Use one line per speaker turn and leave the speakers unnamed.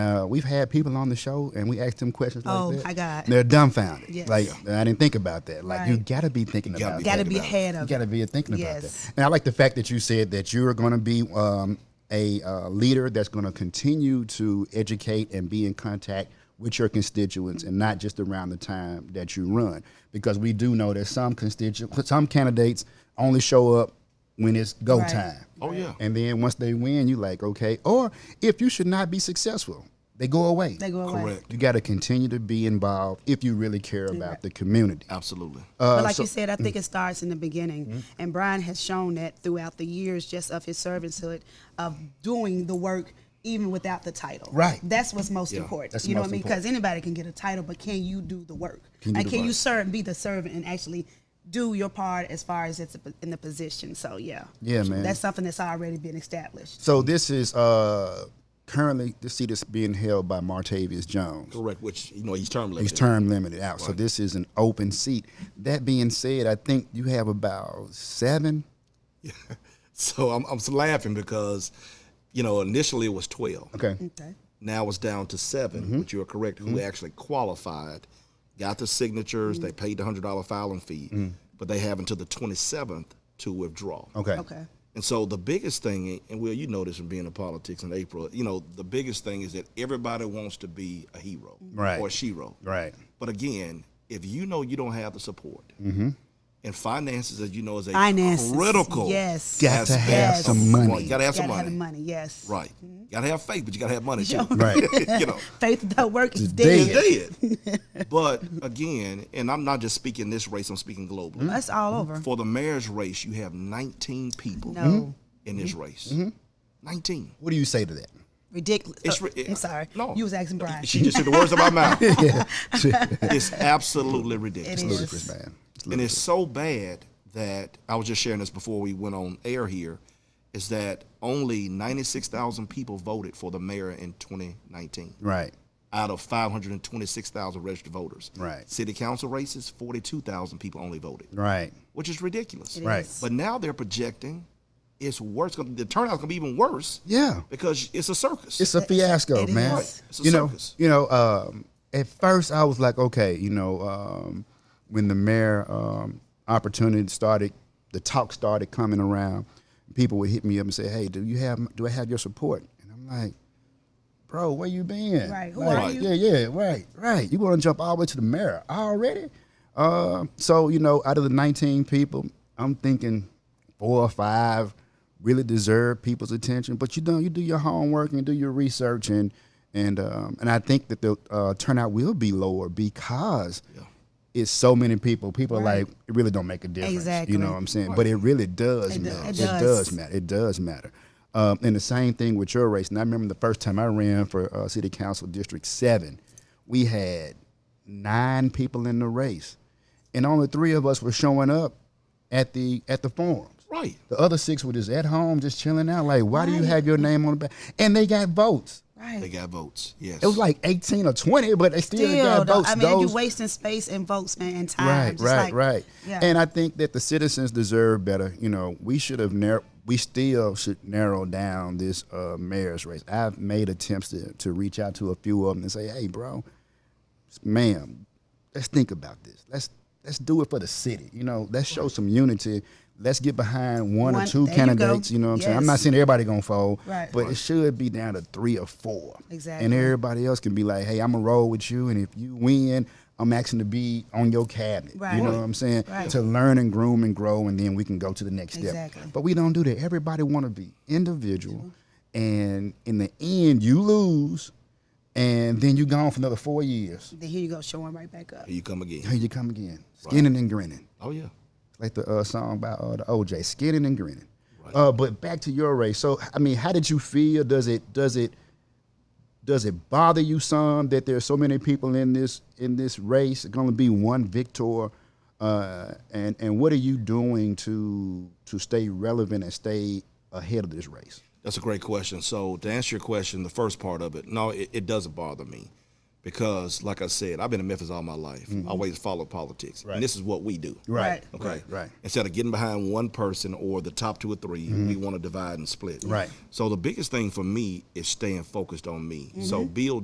Uh, we've had people on the show and we asked them questions
Oh,
like that.
my God.
They're dumbfounded.
Yes.
Like I didn't think about that. Like you
Right.
gotta be thinking
gotta
about
be
that.
Gotta be
about it.
ahead of
You got to be thinking about
Yes.
that. And I like the fact that you said that you're going to be um, a uh, leader that's going to continue to educate and be in contact with your constituents and not just around the time that you run. Because we do know that some constituents, some candidates only show up when it's go
Right.
time.
Oh, yeah.
And then once they win, you like, okay. Or if you should not be successful, they go away.
They go away.
Correct.
You got to continue to be involved if you really care about the community.
Absolutely.
Uh,
but like you said, I think it starts in the beginning, and Brian has shown that throughout the years, just of his servanthood, of doing the work even without the title.
Right.
That's what's most important.
that's
you know
most
what I mean? Because anybody can get a title, but can you do the work? and can you serve and be the servant and actually do your part as far as it's in the position? So yeah.
Yeah, man.
That's something that's already been established.
So this is uh, currently the seat is being held by Martavius Jones.
Correct. Which you know he's term
He's
limited.
term limited out, so this is an open seat. That being said, I think you have about seven.
So I'm I'm laughing because, you know, initially it was twelve.
Okay, Mm-hmm.
Okay.
Now it's down to 7 which you are correct. Who actually qualified, got the signatures.
Mm-hmm.
They paid the hundred dollar filing fee, but they have until the twenty seventh to withdraw.
okay,
Okay.
And so the biggest thing, and Will, you know this from being in politics in April, you know, the biggest thing is that everybody wants to be a hero
Right.
or a shero.
right,
But again, if you know you don't have the support,
Mm-hmm.
and finances, as you know, is a
Finances,
critical.
yes.
Got to
aspect
have
of-
some money.
Well, you gotta have
Gotta
some money.
have the money. Mm-hmm. Yes.
Right. You gotta have faith, but you gotta have money too.
right.
you know.
Faith without work is
Today.
dead.
It's dead. but again, and I'm not just speaking this race, I'm speaking
Mm-hmm.
globally.
That's all over.
For the mayor's race, you have 19 people
No. Mm-hmm.
in this race.
Mm-hmm.
19.
What do you say to that?
Ridiculous.
It's
Oh,
ri-
I'm sorry.
No.
You was asking Brian.
She just said the words out of my mouth. It's absolutely ridiculous.
It is.
Ludicrous, man. It's
And it's so bad that I was just sharing this before we went on air here is that only 96,000 people voted for the mayor in 2019
lu- Right.
out of 526,000 registered voters.
Right.
City council races, 42,000 people only voted,
Right.
which is ridiculous.
Right.
is.
But now they're projecting it's worse. gonna- The turnout's going to be even worse
Yeah.
because it's a circus.
It's a fiasco,
it
man.
is.
It's a
you know,
circus.
you know. Um, at first, I was like, okay, you know, um, when the mayor um, opportunity started, the talk started coming around. People would hit me up and say, "Hey, do you have? Do I have your support?" And I'm like, "Bro, where you been?
Right, who
Like,
are you?
Yeah, yeah, right, right. You want to jump all the way to the mayor already? Uh, so you know, out of the 19 people, I'm thinking four or five really deserve people's attention. But you don't. You do your homework and do your research, and and um, and I think that the uh, turnout will be lower because. It's so many people. People are like, it really don't make a difference.
Exactly.
You know what I'm saying? But it really does
It do-
matter.
it
It
does.
does matter. It does matter. Um, and the same thing with your race. And I remember the first time I ran for uh, City Council District 7, we had nine people in the race. And only three of us were showing up at the at the forums.
right.
The other six were just at home, just chilling out. Like, why do you have your name on the back? And they got votes.
They
Right.
got votes. Yes.
It was like 18 or 20, but they still,
Still,
got
though,
votes.
I mean, you're
Those-
wasting space and votes, man, and time.
Right,
Just
right,
like-
right.
Yeah.
And I think that the citizens deserve better. You know, we should have narrow. We still should narrow down this uh, mayor's race. I've made attempts to, to reach out to a few of them and say, "Hey, bro, ma'am, let's think about this. Let's let's do it for the city. You know, let's show some unity. Let's get behind one, or
One-
two
there you go.
candidates. You, know what I'm saying? I'm not
Yes.
saying everybody gonna fold,
Right.
but it should be down to three or four. And
Exactly.
everybody else can be like, hey, I'm gonna roll with you, and if you win, I'm asking to be on your cabinet.
Right.
You know what I'm saying?
Right.
To learn and groom and grow, and then we can go to the next
Exactly.
step. But we don't do that. Everybody want to be individual, and in the end, you lose, and then you gone for another four years.
Then here you go, showing right back up.
Here you come again.
Here you come again, skinning and grinning,
Oh, yeah.
like the uh, song by uh, the OJ, skinning and grinning. Uh, but back to your race. So, I mean, how did you feel? Does it does it does it bother you some that there's so many people in this in this race going to be one victor uh, and and what are you doing to to stay relevant and stay ahead of this race
That's a great question. So to answer your question, the first part of it, no, it, it doesn't bother me because, like I said, I've been in Memphis all my life. I always follow politics, and this is what we do.
Mm-hmm. Right.
Okay.
Right. Mm-hmm.
Instead of getting behind one person or the top two or 3 we want to divide and split.
Right. Mm-hmm.
So the biggest thing for me is staying focused on me. So build